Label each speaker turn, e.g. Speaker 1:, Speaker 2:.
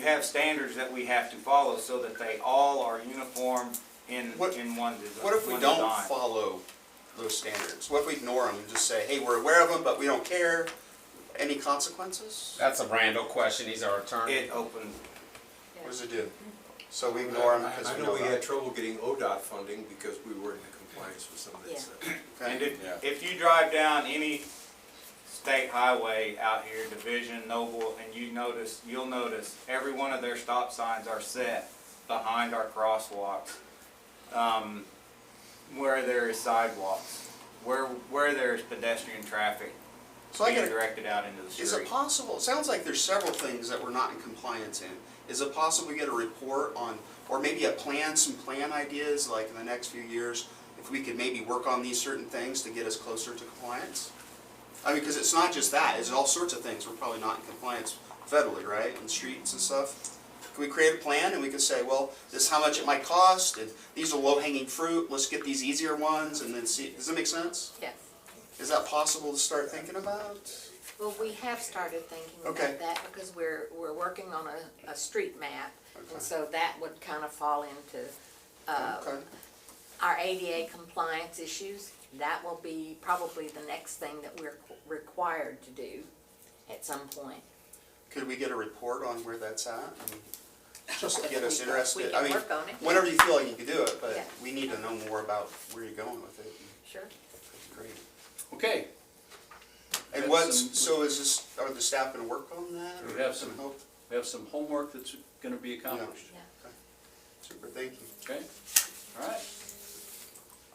Speaker 1: have standards that we have to follow so that they all are uniform in,
Speaker 2: What-
Speaker 1: in one design.
Speaker 2: What if we
Speaker 1: one
Speaker 2: don't
Speaker 1: design.
Speaker 2: follow those standards? What if we ignore them and just say, hey, we're aware of them, but we don't care? Any consequences?
Speaker 3: That's a Randall question, he's our attorney.
Speaker 1: It opens,
Speaker 2: What does it do? So we ignore them because
Speaker 4: I
Speaker 2: we
Speaker 4: know
Speaker 2: know
Speaker 4: we had
Speaker 2: about
Speaker 4: trouble getting ODOT funding because we weren't in compliance with some of that stuff.
Speaker 1: and
Speaker 2: it.
Speaker 1: if, if you drive down any state highway out here, Division, Noble, and you notice, you'll notice, every one of their stop signs are set behind our crosswalks, um, where there is sidewalks, where, where there is pedestrian traffic
Speaker 2: So I
Speaker 1: being
Speaker 2: got a
Speaker 1: directed out into the street.
Speaker 2: Is it possible, it sounds like there's several things that we're not in compliance in. Is it possible we get a report on, or maybe a plan, some plan ideas, like in the next few years, if we could maybe work on these certain things to get us closer to compliance? I mean, because it's not just that, it's all sorts of things, we're probably not in compliance federally, right, on streets and stuff. Can we create a plan and we can say, well, this is how much it might cost, and these are low-hanging fruit, let's get these easier ones, and then see, does that make sense?
Speaker 5: Yes.
Speaker 2: Is that possible to start thinking about?
Speaker 5: Well, we have started thinking
Speaker 2: Okay.
Speaker 5: about that because we're, we're working on a, a street map.
Speaker 2: Okay.
Speaker 5: And so that would kind of fall into, uh,
Speaker 2: Okay.
Speaker 5: our ADA compliance issues. That will be probably the next thing that we're qu- required to do at some point.
Speaker 2: Could we get a report on where that's at? I mean, Just to get
Speaker 5: We
Speaker 2: us
Speaker 5: can-
Speaker 2: interested, I
Speaker 5: We
Speaker 2: mean,
Speaker 5: can work on it.
Speaker 2: whenever you feel like you can do it, but
Speaker 5: Yeah.
Speaker 2: we need to know more about where you're going with it.
Speaker 5: Sure.
Speaker 2: That'd be Great.
Speaker 6: Okay,
Speaker 2: And
Speaker 6: Have
Speaker 2: what's,
Speaker 6: some-
Speaker 2: so is this, are the staff gonna work on that?
Speaker 6: We
Speaker 2: or
Speaker 6: have some-
Speaker 2: help?
Speaker 6: we have some homework that's gonna be accomplished,
Speaker 5: Yeah.
Speaker 2: Super, thank you.
Speaker 6: okay? All right,